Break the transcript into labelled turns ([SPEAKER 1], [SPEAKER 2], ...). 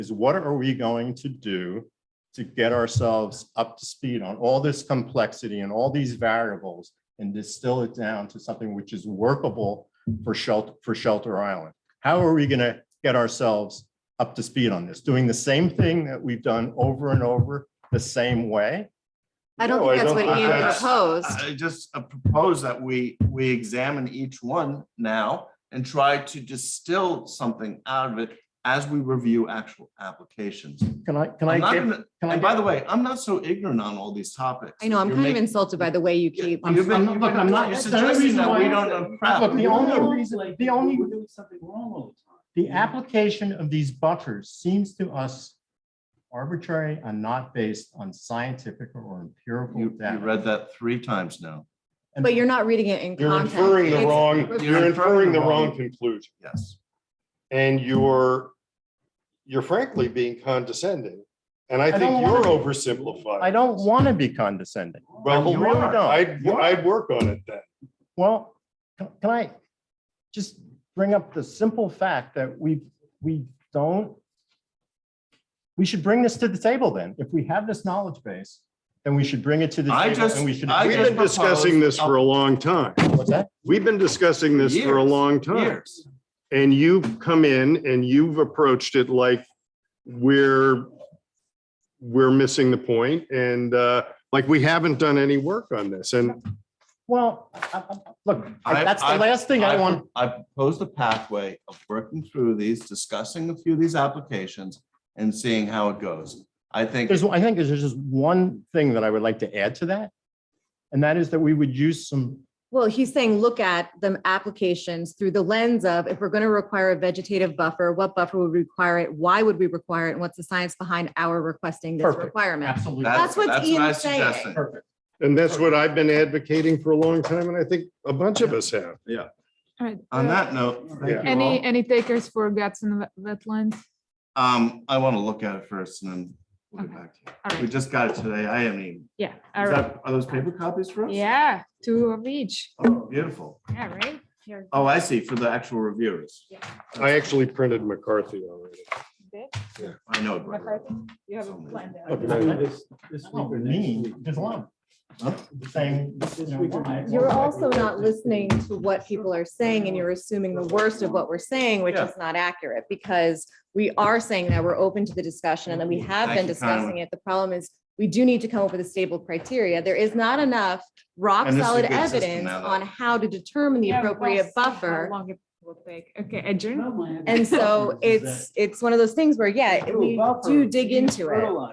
[SPEAKER 1] is what are we going to do to get ourselves up to speed on all this complexity and all these variables and distill it down to something which is workable for shelter, for Shelter Island? How are we going to get ourselves up to speed on this? Doing the same thing that we've done over and over the same way?
[SPEAKER 2] I don't
[SPEAKER 3] No,
[SPEAKER 2] think that's what
[SPEAKER 3] don't think
[SPEAKER 2] Ian
[SPEAKER 3] that's-
[SPEAKER 2] proposed.
[SPEAKER 3] I just uh, propose that we, we examine each one now and try to distill something out of it as we review actual applications.
[SPEAKER 1] Can I, can
[SPEAKER 3] I'm
[SPEAKER 1] I
[SPEAKER 3] not
[SPEAKER 1] give?
[SPEAKER 3] gonna-
[SPEAKER 1] can I
[SPEAKER 3] And by
[SPEAKER 1] give-
[SPEAKER 3] the way, I'm not so ignorant on all these topics.
[SPEAKER 2] I know, I'm
[SPEAKER 3] You're
[SPEAKER 2] kind of
[SPEAKER 3] making-
[SPEAKER 2] insulted by the way you
[SPEAKER 3] Yeah,
[SPEAKER 2] keep.
[SPEAKER 3] I'm-
[SPEAKER 1] You've been-
[SPEAKER 3] I'm-
[SPEAKER 1] look, I'm not-
[SPEAKER 3] You're
[SPEAKER 1] that's the only
[SPEAKER 3] suggesting
[SPEAKER 1] reason
[SPEAKER 3] that
[SPEAKER 1] why
[SPEAKER 3] we
[SPEAKER 1] I'm-
[SPEAKER 3] don't know crap.
[SPEAKER 1] Look, the only reason-
[SPEAKER 4] Like,
[SPEAKER 1] the only-
[SPEAKER 4] We're doing something wrong all the time.
[SPEAKER 1] The application of these buffers seems to us arbitrary and not based on scientific or empirical
[SPEAKER 3] You, you
[SPEAKER 1] data.
[SPEAKER 3] read that three times now.
[SPEAKER 1] And-
[SPEAKER 2] But you're not reading it in
[SPEAKER 5] You're
[SPEAKER 2] context.
[SPEAKER 5] inferring the
[SPEAKER 2] It's-
[SPEAKER 5] wrong,
[SPEAKER 2] You're
[SPEAKER 5] you're inferring the
[SPEAKER 3] wrong.
[SPEAKER 5] wrong conclusion
[SPEAKER 3] Yes.
[SPEAKER 5] and you're, you're frankly being condescending. And I
[SPEAKER 1] don't
[SPEAKER 5] think
[SPEAKER 1] wanna
[SPEAKER 5] you're
[SPEAKER 1] be.
[SPEAKER 5] oversimplifying.
[SPEAKER 1] I don't want to be condescending.
[SPEAKER 5] Well,
[SPEAKER 1] I really don't.
[SPEAKER 5] I'd, I'd work on it then.
[SPEAKER 1] Well, can can I just bring up the simple fact that we, we don't, we should bring this to the table then. If we have this knowledge base, then we should bring it to the
[SPEAKER 3] I
[SPEAKER 1] table
[SPEAKER 3] just-
[SPEAKER 1] and we should.
[SPEAKER 3] I
[SPEAKER 5] We've
[SPEAKER 3] just
[SPEAKER 5] been discussing
[SPEAKER 3] proposed
[SPEAKER 5] this for a long time.
[SPEAKER 1] What's that?
[SPEAKER 5] We've been discussing this for a
[SPEAKER 3] Years,
[SPEAKER 5] long time.
[SPEAKER 3] Years.
[SPEAKER 5] And you've come in and you've approached it like we're, we're missing the point and uh, like we haven't done any work on this. And
[SPEAKER 1] Well, I- I- I- look,
[SPEAKER 3] I-
[SPEAKER 1] that's the
[SPEAKER 3] I-
[SPEAKER 1] last thing I want.
[SPEAKER 3] I proposed a pathway of working through these, discussing a few of these applications and seeing how it goes. I think,
[SPEAKER 1] There's, I think there's just one thing that I would like to add to that. And that is that we would use some,
[SPEAKER 2] Well, he's saying, look at the applications through the lens of, if we're going to require a vegetative buffer, what buffer would require it? Why would we require it? And what's the science behind our requesting this
[SPEAKER 1] Perfect.
[SPEAKER 2] requirement?
[SPEAKER 1] absolutely.
[SPEAKER 2] That's
[SPEAKER 3] that's,
[SPEAKER 2] what
[SPEAKER 3] that's what I
[SPEAKER 2] Ian's saying.
[SPEAKER 3] suggested.
[SPEAKER 1] Perfect.
[SPEAKER 5] and that's what I've been advocating for a long time and I think a bunch of us have.
[SPEAKER 6] All right.
[SPEAKER 3] On
[SPEAKER 6] uh,
[SPEAKER 3] that note, thank you
[SPEAKER 6] Any,
[SPEAKER 3] all.
[SPEAKER 6] any takers for guts and wet- wetlands?
[SPEAKER 3] Um, I want to look at it first and then we'll get
[SPEAKER 6] Okay.
[SPEAKER 3] back to
[SPEAKER 6] All
[SPEAKER 3] you. We
[SPEAKER 6] right.
[SPEAKER 3] just got it today. I haven't even.
[SPEAKER 6] Yeah. All
[SPEAKER 3] Is
[SPEAKER 6] right.
[SPEAKER 3] that- Are those paper copies for us?
[SPEAKER 6] Yeah, two of each.
[SPEAKER 3] Oh, beautiful.
[SPEAKER 6] Yeah, right? Here.
[SPEAKER 3] Oh, I see, for the actual reviewers.
[SPEAKER 5] I actually printed McCarthy already.
[SPEAKER 3] I know. Gregory.
[SPEAKER 6] You
[SPEAKER 3] have a plan
[SPEAKER 4] Oh, This, this week or next
[SPEAKER 1] Mean,
[SPEAKER 4] week.
[SPEAKER 1] Oh, there's a lot. Saying, you know, why?
[SPEAKER 2] You're also not listening to what people are saying and you're assuming the worst of what we're saying, which is not accurate because we are saying that we're open to the discussion and that we have
[SPEAKER 3] Mm-hmm. Thank
[SPEAKER 2] been
[SPEAKER 3] you, Conway.
[SPEAKER 2] discussing it. The problem is we do need to come up with a stable criteria. There is not enough rock
[SPEAKER 3] And this is a
[SPEAKER 2] solid
[SPEAKER 3] good system
[SPEAKER 2] evidence
[SPEAKER 3] now, though.
[SPEAKER 2] on how to determine the appropriate buffer.
[SPEAKER 6] How long it will take. Okay, adjourn.
[SPEAKER 4] Well, my
[SPEAKER 2] And so
[SPEAKER 4] advice is
[SPEAKER 2] it's, it's one of those things where, yeah,
[SPEAKER 4] that-
[SPEAKER 2] we
[SPEAKER 4] Buffer,
[SPEAKER 2] do dig
[SPEAKER 4] use
[SPEAKER 2] into it.
[SPEAKER 4] fertilizer.